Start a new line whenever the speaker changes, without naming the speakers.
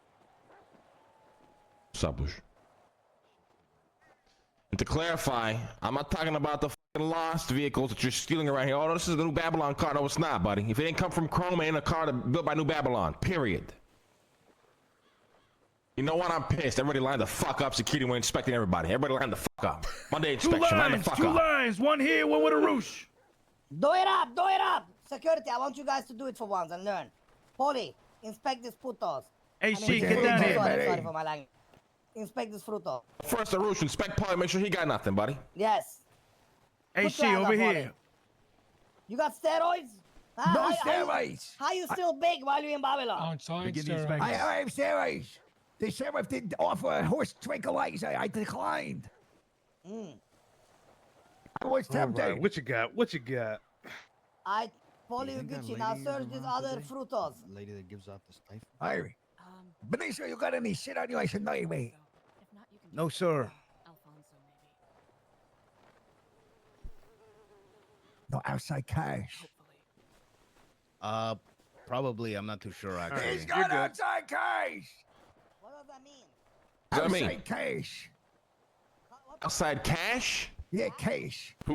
Sabush. And to clarify, I'm not talking about the fucking lost vehicles that you're stealing around here. Oh, no, this is the New Babylon car. No, it's not, buddy. If it didn't come from Chrome, it ain't a car that built by New Babylon. Period. You know what? I'm pissed. Everybody lined the fuck up. Security went inspecting everybody. Everybody lined the fuck up. Monday
Two
inspection. line the
lines,
fuck
two
up.
lines, one here, one with a roosh.
Do it up, do it up! Security, I want you guys to do it for once and learn. Polly, inspect these putos.
Hey,
I mean,
she, get
frutos,
down here.
Sorry,
man.
sorry for my language. Inspect this fruto.
First, the Roosh inspect Polly. Make sure he got nothing, buddy.
Yes.
Hey,
Put your
she,
hands
over
up on
here.
it. You got steroids? Huh?
No
how, How,
steroids.
how you still big while you in Babylon?
Oh.
On science,
Begin these
steroids.
back-
I, I have steroids. The sheriff didn't offer a horse tranquilizer. I declined.
Mm.
I was
All
tempted.
right, what you got? What you got?
I, Polly
You think that
Gucci, now
lady
search these
around
other
today?
frutos.
Lady that gives out the sniff.
Irie,
Um,
Benicio, you got any shit on you? I should know you, mate.
if not, you can
No,
take
sir.
Alfonso, maybe.
No outside cash.
Hopefully.
Uh, probably. I'm not too sure. Actually.
He's
you're
got
good.
outside cash.
What does that mean?
What I
outside
mean?
cash.
What- what-
Outside cash?
Yeah, cash.